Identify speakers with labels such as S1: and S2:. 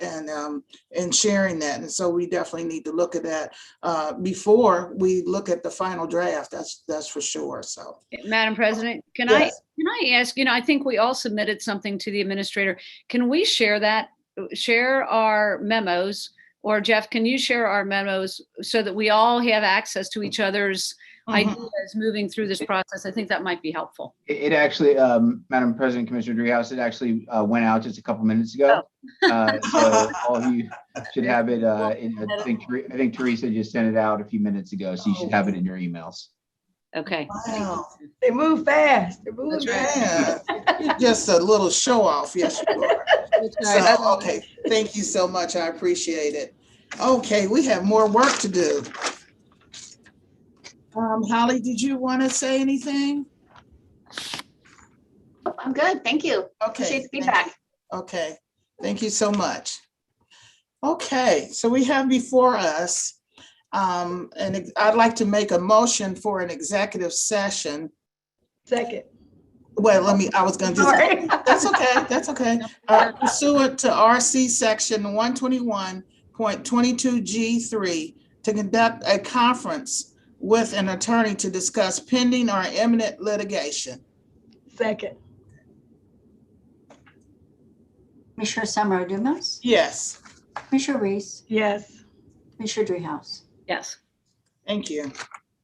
S1: um, and sharing that. And so we definitely need to look at that uh, before we look at the final draft. That's, that's for sure. So.
S2: Madam President, can I,
S1: Yes.
S2: can I ask, you know, I think we all submitted something to the administrator. Can we share that, share our memos? Or Jeff, can you share our memos so that we all have access to each other's
S1: mhm.
S2: ideas moving through this process? I think that might be helpful.
S3: It, it actually, um, Madam President, Commissioner Dreehouse, it actually, uh, went out just a couple minutes ago. Uh, so all of you should have it, uh, in, I think, Ther- I think Teresa just sent it out a few minutes ago, so you should have it in your emails.
S2: Okay.
S1: Wow.
S4: They move fast. They move
S2: That's right.
S1: Oh, Yeah, you're just a little show off, yes you are. So, okay, thank you so much, I appreciate it. Okay, we have more work to do. Um, Holly, did you want to say anything?
S5: I'm good, thank you.
S1: Okay.
S5: Appreciate the
S1: thank
S5: feedback.
S1: you. Okay, thank you so much. Okay, so we have before us, um, and I'd like to make a motion for an executive session.
S4: Second.
S1: Well, let me, I was gonna do.
S4: Sorry.
S1: That's okay, that's okay. Uh, Pursuant to RC Section one twenty-one point twenty-two G three, to conduct a conference with an attorney to discuss pending or imminent litigation.
S4: Second.
S6: Commissioner Summer Dumas,
S1: Yes,
S6: Commissioner Reese,
S4: Yes.
S6: Commissioner Dreehouse.
S2: Yes.
S1: thank you.